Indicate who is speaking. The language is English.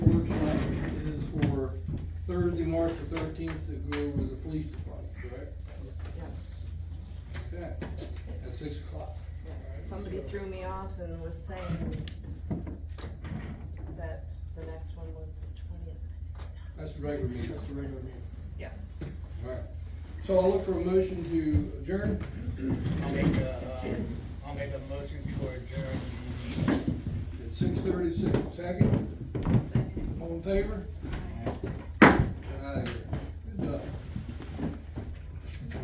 Speaker 1: Thursday, March the thirteenth, to go over the police department, correct?
Speaker 2: Yes,
Speaker 1: Okay, at six o'clock.
Speaker 2: yes. Somebody threw me off and was saying that the next one was the twentieth.
Speaker 1: That's the regular meeting. That's the regular meeting.
Speaker 2: Yeah.
Speaker 1: Alright, so I'll look for a motion to adjourn.
Speaker 3: I'll make a, uh, I'll make a motion to adjourn the meeting.
Speaker 1: At six thirty-six, second? All in favor? Get out of here.